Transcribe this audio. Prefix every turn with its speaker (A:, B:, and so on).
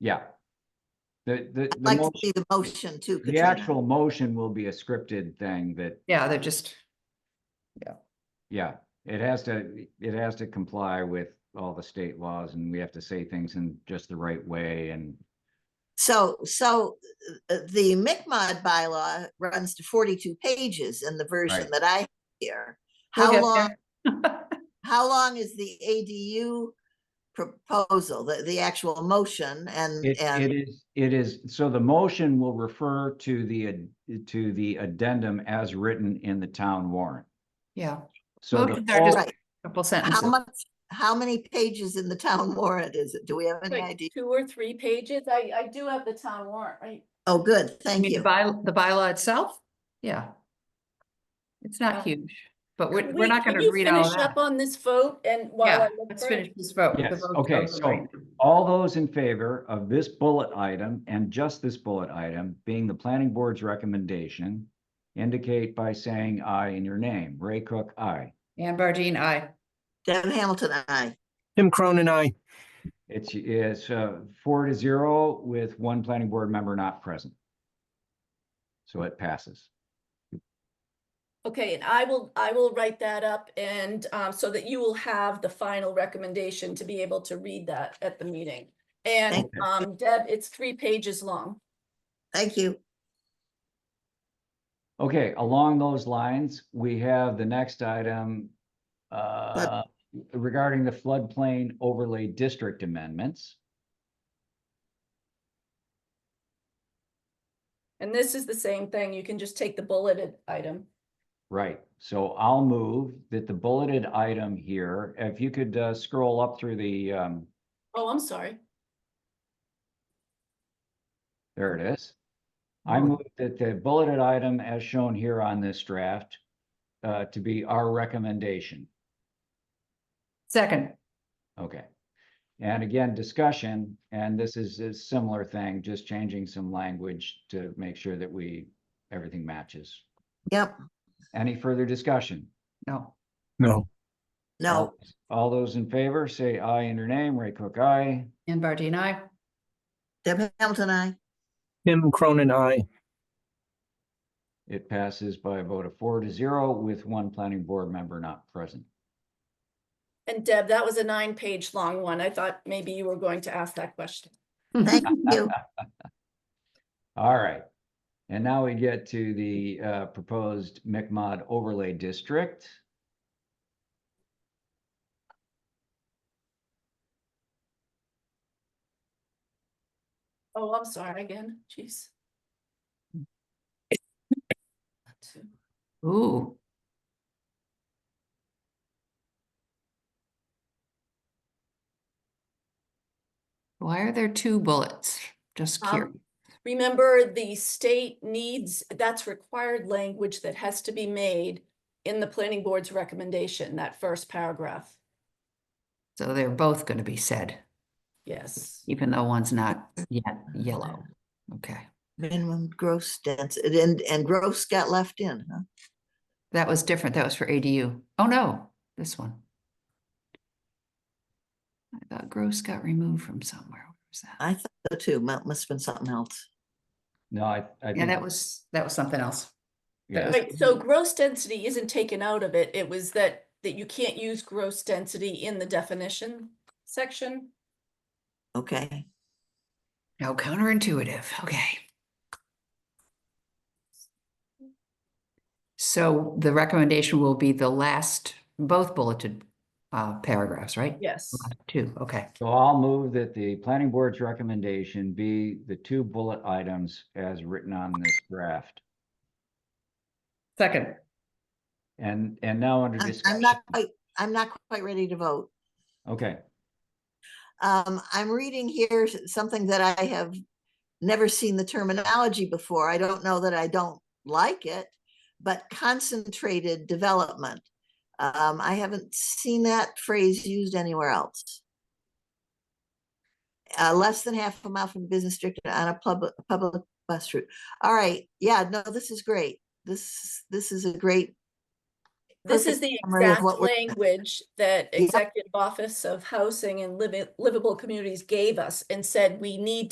A: Yeah. The, the,
B: I'd
A: the,
B: like to
A: mo-
B: see the motion too.
A: the
B: Katrina.
A: actual motion will be a scripted thing that,
C: Yeah, they're just,
A: yeah, it has to, it has to comply with all the state laws and we have to say things in just the right way and
B: So, so uh, the McMod bylaw runs to forty-two pages in the version
A: Right.
B: that I hear.
C: We'll
B: How
C: get
B: long, how long is the ADU proposal, the, the actual motion and,
A: it, it
B: and,
A: is, it is, so the motion will refer to the, ad- to the addendum as written in the town warrant.
C: yeah,
A: So the
C: Motions are just-
A: full-
B: right,
C: couple
B: how
C: sentences.
B: much, how many pages in the town warrant is it? Do we have any
D: Like
B: idea?
D: two or three pages. I, I do have the town warrant, right?
B: Oh, good,
C: I
B: thank
C: mean,
B: you.
C: The by, the bylaw itself, yeah. It's
D: Um,
C: not huge, but we're,
D: Can
C: we're
D: we-
C: not
D: can
C: gonna
D: you
C: read all
D: finish
C: that.
D: up On this vote and while
C: Yeah,
D: I look
C: let's
D: for it?
C: finish this vote. The
A: Yes,
C: vote's
A: okay,
C: over
A: so-
C: right now.
A: all those in favor of this bullet item and just this bullet item being the planning board's recommendation, indicate by saying aye in your name. Ray Cook, aye.
C: Ann Bardine, aye.
B: Deb Hamilton, aye.
E: Tim Cronin, I.
A: It's, it's uh, four to zero with one planning board member not present. So it passes.
D: Okay, and I will, I will write that up and, um, so that you will have the final recommendation to be able to read that at the meeting. And,
A: Thank you.
D: um, Deb, it's three pages long.
B: Thank you.
A: Okay, along those lines, we have the next item uh, regarding the floodplain overlay district amendments.
D: And this is the same thing. You can just take the bulleted item.
A: Right, so I'll move that the bulleted item here, if you could uh, scroll up through the, um,
D: Oh, I'm sorry.
A: there it is. I
C: Oh.
A: move that the bulleted item as shown here on this draft uh, to be our recommendation.
C: Second,
A: Okay. And again, discussion, and this is a similar thing, just changing some language to make sure that we, everything matches.
B: Yep,
A: Any further discussion?
C: no,
E: No.
B: no,
A: All those in favor, say aye in your name, Ray Cook, aye.
C: Ann Bardine, aye.
B: Deb Hamilton, aye.
E: Tim Cronin, I.
A: It passes by a vote of four to zero with one planning board member not present.
D: And Deb, that was a nine-page long one. I thought maybe you were going to ask that question.
B: Thank you.
A: All right. And now we get to the uh, proposed McMod overlay district.
D: Oh, I'm sorry again. Jeez. Two.
C: Ooh, why are there two bullets? Just
D: Um,
C: curious.
D: Remember, the state needs, that's required language that has to be made in the planning board's recommendation, that first paragraph.
C: So they're both gonna be said,
D: Yes.
C: even though one's not yet yellow. Okay,
B: Minimum gross density, and, and gross got left in, huh?
C: that was different. That was for ADU. Oh, no, this one. I thought gross got removed from somewhere. Where was that?
B: I thought so too, must have been something else.
A: No, I, I
C: Yeah,
A: think.
C: that was, that was something else.
A: yeah.
C: was-
D: Right, so gross density isn't taken out of it. It was that, that you can't use gross density in the definition section.
B: Okay,
C: How counterintuitive. Okay. So the recommendation will be the last, both bulleted uh, paragraphs, right? Uh,
D: Yes.
C: Two, okay.
A: So I'll move that the planning board's recommendation be the two bullet items as written on this draft.
C: Second.
A: And, and now under
B: I'm- I'm
A: discussion.
B: not quite, I'm not quite ready to vote.
A: Okay,
B: Um, I'm reading here s- something that I have never seen the terminology before. I don't know that I don't like it, but concentrated development. Um, I haven't seen that phrase used anywhere else. Uh, less than half a mile from the business district and on a public, public bus route. All right, yeah, no, this is great. This, this is a great,
D: This is
B: perfect
D: the
B: summary of
D: exact
B: what we're-
D: language that
B: Yeah.
D: Executive Office of Housing and Livi- Livable Communities gave us and said we need